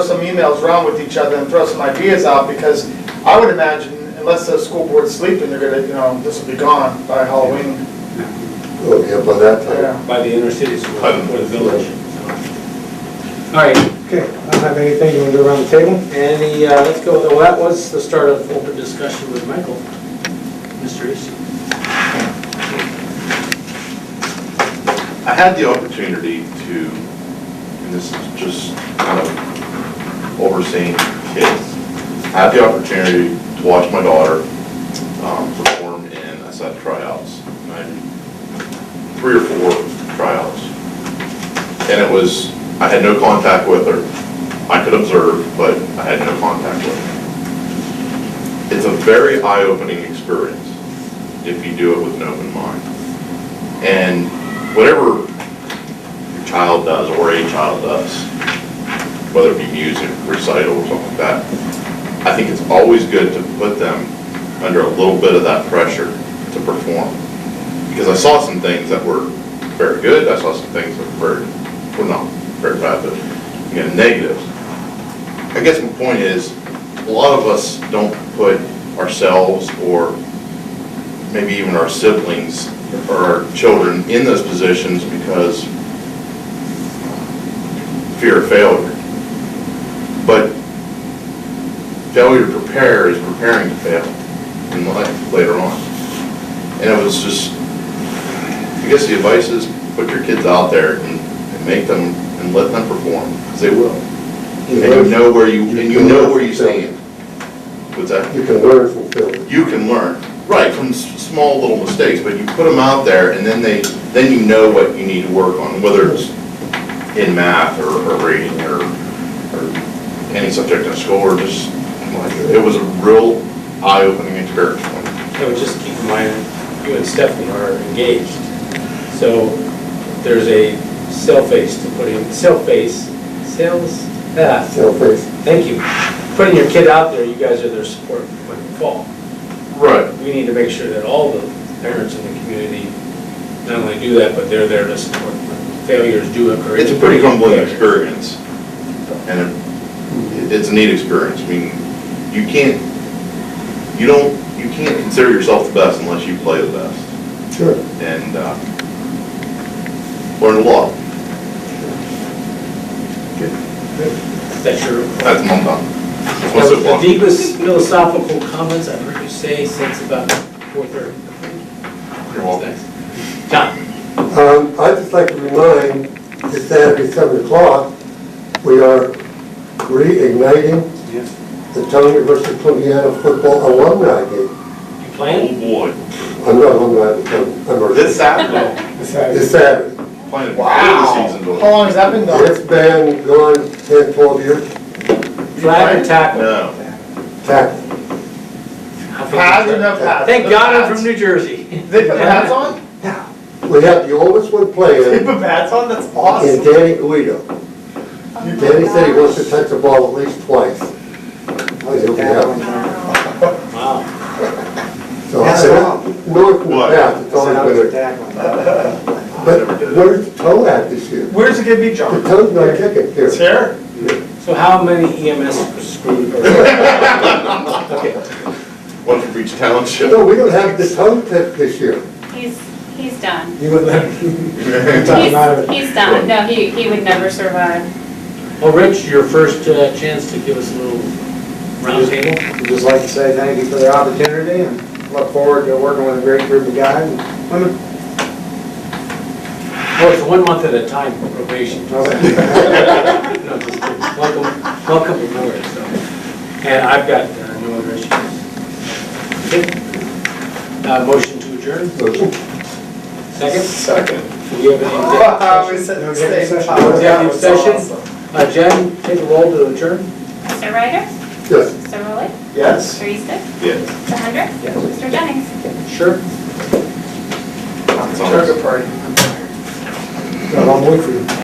emails around with each other and throw some ideas out, because I would imagine, unless the school board's sleeping, they're gonna, you know, this will be gone by Halloween. Oh, yeah, by that time. Yeah. by the inner city school or the village. All right, Okay, I don't have anything, you want to go around the table? any, uh, let's go, with- well, that was the start of open discussion with Michael. Mr. Easton. I had the opportunity to, and this is just kind of overseeing kids, I had the opportunity to watch my daughter um, perform in, I said tryouts, and I did three or four tryouts. And it was, I had no contact with her. I could observe, but I had no contact with her. It's a very eye-opening experience if you do it with an open mind. And whatever your child does or a child does, whether it be music, recital, or something like that, I think it's always good to put them under a little bit of that pressure to perform. Because I saw some things that were very good, I saw some things that were very, were not very bad, but, you know, negatives. I guess my point is, a lot of us don't put ourselves or maybe even our siblings or our children in those positions because fear of failure. But failure to prepare is preparing to fail in life later on. And it was just, I guess the advice is put your kids out there and and make them, and let them perform, because they will. And you know where you, and you know where you stand. What's that? You can learn from failure. you can learn, right, from s- small little mistakes, but you put them out there, and then they, then you know what you need to work on, whether it's in math, or, or reading, or, or any subject in school, or just, like, it was a real eye-opening experience for me. So just keep in mind, you and Stephanie are engaged. So there's a cell face to put in, cell face, sales, ah, Self-praise. thank you. Putting your kid out there, you guys are their support when you fall. Right. We need to make sure that all the parents in the community not only do that, but they're there to support when failures do occur. It's a pretty humbling experience, and it, it's a neat experience, I mean, you can't, you don't, you can't consider yourself the best unless you play the best, Sure. and, uh, learned a lot, That's your. that's my thought. That's my That was the soapbox. deepest philosophical comments I've heard you say since about four thirty. You're welcome. John, Um, I'd just like to remind that Saturday, seven o'clock, we are reigniting the Town University of Columbia Football Alumni Game. you playing? Oh I'm not alumni, I'm, I'm. boy. This Saturday, Besides, This Saturday. playing the season How going. long has that been going? It's been gone ten, twelve years, Flag or tackle? No, tax, How big is Pads or that? no pads? Thank No God I'm pads. from New Jersey. They put pads on? we have the oldest one They playing, put pads on? That's and awesome. Danny Guido. Danny said he wants to touch the ball at least twice. Oh, He'll be happy. Wow. So That's I- North and What? south, it's always been a, but where's the toe at this year? Where's it gonna be, The John? toe's not kicking It's here. here? So how many EMS screwed? or- one from each township. No, we don't have the toe pick this year. He's, he's done. you would let, you talking out of He's, it. he's done. No, he, he would never survive. Well, Rich, your first uh, chance to give us a little roundtable. We'd Just like to say thank you for the opportunity and look forward to working with a great group of guys and women. Well, it's one month at a time probation. No, just kidding. Welcome, welcome aboard, so. And I've got uh, no other issues. Okay. Uh, Motion to adjourn, second? Second. Do we have Wow, any we said the Executive same session. time. That Executive was session. awesome. Uh, Jen, take a roll to adjourn? Mr. Ryder, Yes. Mr. Rowley, Yes? Mr. Eastick, Yeah. Mr. Hendrick, Mr. Jennings. Sure. it's almost- Turkey party. I'm with you.